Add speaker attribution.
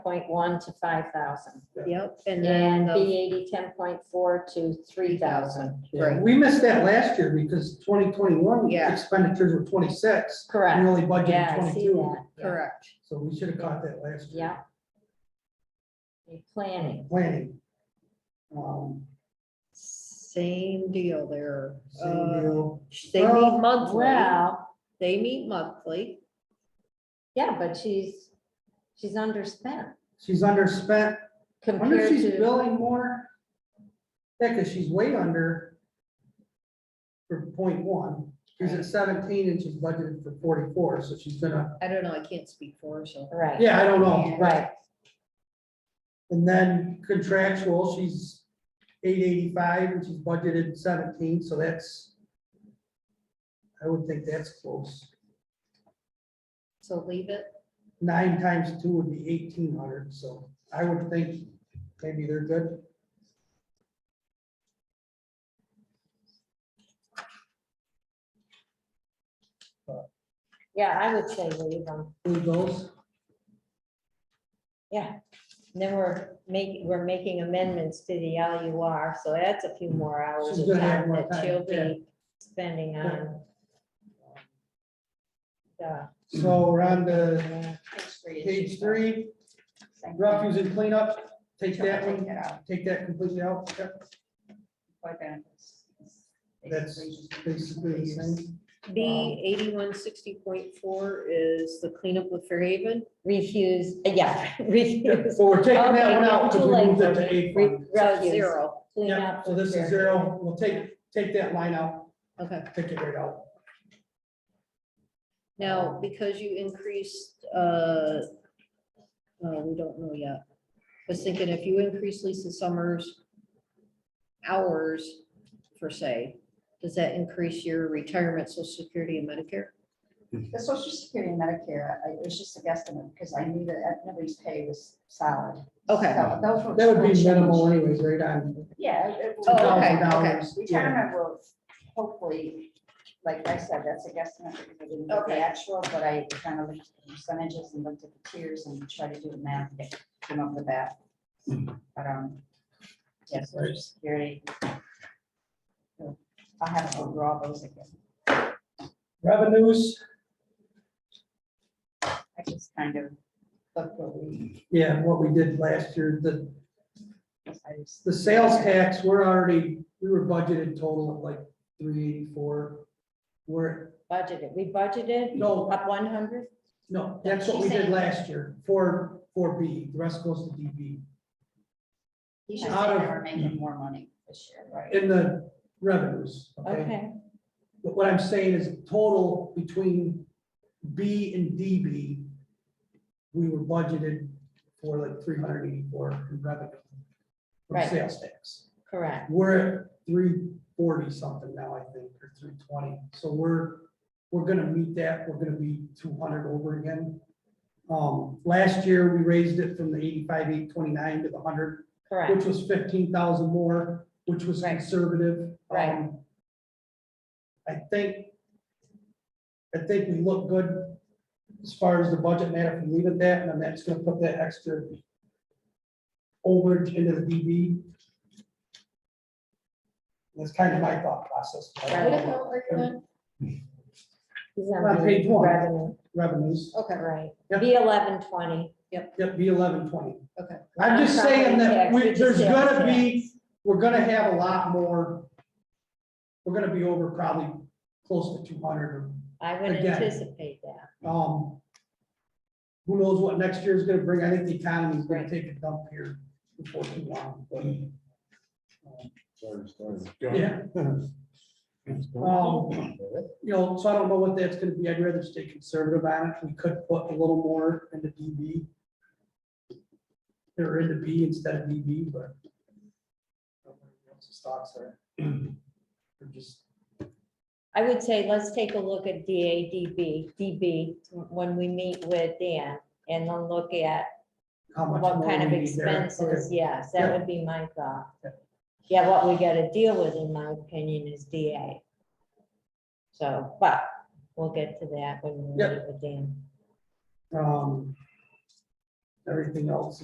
Speaker 1: point one to five thousand.
Speaker 2: Yep, and then
Speaker 1: And B
Speaker 2: the
Speaker 1: eighty, ten point four to three thousand.
Speaker 3: Yeah,
Speaker 2: Right.
Speaker 3: we missed that last year because twenty twenty-one
Speaker 2: Yeah.
Speaker 3: expenditures were twenty-six. We
Speaker 1: Correct.
Speaker 3: only budgeted
Speaker 1: Yeah, I see
Speaker 3: twenty-two,
Speaker 1: that. Yeah.
Speaker 2: correct.
Speaker 3: so we should have caught that last year.
Speaker 1: Yeah. The Planning,
Speaker 3: Planning. Um,
Speaker 2: Same deal there.
Speaker 3: same
Speaker 2: Uh,
Speaker 3: deal.
Speaker 2: They meet
Speaker 3: Well,
Speaker 2: monthly,
Speaker 1: well,
Speaker 2: they meet monthly.
Speaker 1: yeah, but she's, she's underspent
Speaker 3: She's underspent. Wonder if
Speaker 1: compared
Speaker 3: she's
Speaker 1: to,
Speaker 3: billing more? Yeah, because she's way under for point one. She's at seventeen and she's budgeted for forty-four, so she's gonna,
Speaker 2: I don't know, I can't speak for her, so.
Speaker 1: right,
Speaker 3: yeah, I don't know.
Speaker 1: right,
Speaker 3: And then contractual, she's eight eighty-five and she's budgeted seventeen, so that's, I would think that's close.
Speaker 2: So leave it.
Speaker 3: Nine times two would be eighteen hundred, so I would think maybe they're good.
Speaker 1: yeah, I would say leave them,
Speaker 3: Who knows?
Speaker 1: yeah. And Then we're making, we're making amendments to the L U R, so that's a few more hours
Speaker 3: She's
Speaker 1: of
Speaker 3: gonna have
Speaker 1: time
Speaker 3: more
Speaker 1: that
Speaker 3: time,
Speaker 1: she'll
Speaker 3: yeah.
Speaker 1: be spending on. uh, the
Speaker 3: So we're on to page
Speaker 4: Page
Speaker 3: three, refuse and cleanup, take that one, take that completely out. Yep, That's basically the same.
Speaker 2: B eighty-one sixty point four is the cleanup with Fairhaven.
Speaker 1: Refuse, uh, yeah, refuse.
Speaker 3: So we're taking that one out because
Speaker 1: Okay,
Speaker 3: we
Speaker 1: too
Speaker 3: moved
Speaker 1: late.
Speaker 3: it to eight.
Speaker 1: Re-
Speaker 2: So
Speaker 1: refuse.
Speaker 2: Zero,
Speaker 1: Clean
Speaker 3: Yep,
Speaker 1: up
Speaker 3: so this
Speaker 1: here.
Speaker 3: is zero, we'll take, take that line out,
Speaker 2: okay.
Speaker 3: take it right out.
Speaker 2: Now,
Speaker 1: Um,
Speaker 2: because you increased, uh, uh, we don't know yet. I was thinking if you increase Lisa Summers' hours, per se, does that increase your retirement, social security and Medicare?
Speaker 4: The social security and Medicare, I- it was just a guesstimate because I knew that everybody's pay was solid.
Speaker 2: Okay.
Speaker 4: So those were-
Speaker 3: That would be minimal anyways, right on.
Speaker 4: Yeah. it- it
Speaker 2: Oh,
Speaker 4: will-
Speaker 2: okay,
Speaker 3: $2,000, yeah.
Speaker 4: Retirement will hopefully, like I said, that's a guesstimate because I didn't get the
Speaker 2: Okay.
Speaker 4: actual, but I kind of looked at the percentages and looked at the tiers and tried to do the math, to come up with that. But, um, yes, social security. I'll have to overall those again.
Speaker 3: Revenues,
Speaker 4: I just kind of looked what we,
Speaker 3: yeah, what we did last year, the,
Speaker 4: I just.
Speaker 3: the sales tax, we're already, we were budgeted total of like three eighty-four. We're,
Speaker 1: Budgeted, we budgeted
Speaker 3: no,
Speaker 1: up one hundred,
Speaker 3: no, that's what we did last year, four, four B, the rest goes to DB.
Speaker 4: You should
Speaker 3: Out
Speaker 4: say
Speaker 3: of- Mm.
Speaker 4: they were making more money this year, right?
Speaker 3: In the revenues, okay?
Speaker 1: okay,
Speaker 3: But what I'm saying is total between B and DB, we were budgeted for like three hundred eighty-four in revenue. From
Speaker 1: Right.
Speaker 3: sales tax.
Speaker 1: correct,
Speaker 3: We're at three forty something now, I think, or three twenty. So we're, we're gonna meet that. We're gonna be two hundred over again. Um, last year, we raised it from the eighty-five, eight twenty-nine to the hundred
Speaker 1: correct,
Speaker 3: which was fifteen thousand more, which was
Speaker 1: Right.
Speaker 3: conservative.
Speaker 1: Right.
Speaker 3: Um, I think, I think we look good as far as the budget matter, if we leave it that, and then that's gonna put that extra over into the DB. That's kind of my thought process.
Speaker 1: Right. He's
Speaker 3: On
Speaker 1: on
Speaker 3: page
Speaker 1: the
Speaker 3: one.
Speaker 1: revenue,
Speaker 3: Revenues,
Speaker 2: Okay,
Speaker 1: right,
Speaker 3: Yep.
Speaker 1: B eleven twenty.
Speaker 3: yep, be eleven twenty.
Speaker 2: Okay.
Speaker 3: I'm just saying that we, there's gonna be we're gonna have a lot more. We're gonna be over probably close to two hundred.
Speaker 1: I would
Speaker 3: again.
Speaker 1: anticipate that,
Speaker 3: Um. Who knows what next year is gonna bring? I think the economy is gonna
Speaker 1: Right.
Speaker 3: take a dump here before too long, but. um,
Speaker 5: Sorry, sorry.
Speaker 3: Yeah, um, you know, so I don't know what that's gonna be. I'd rather stay conservative on it. We could put a little more in the DB. Or in the B instead of DB, but. What's the thoughts are? Or just.
Speaker 1: I would say, let's take a look at D A D B, D B, when we meet with Dan, and then look at
Speaker 3: how much
Speaker 1: what
Speaker 3: more
Speaker 1: kind of
Speaker 3: we need there.
Speaker 1: expenses, yes,
Speaker 3: Yeah.
Speaker 1: that would be my thought.
Speaker 3: Yeah.
Speaker 1: Yeah, what we gotta deal with, in my opinion, is DA. So, but we'll get to that when we
Speaker 3: Yep.
Speaker 1: meet with Dan.
Speaker 3: Okay. Um, everything else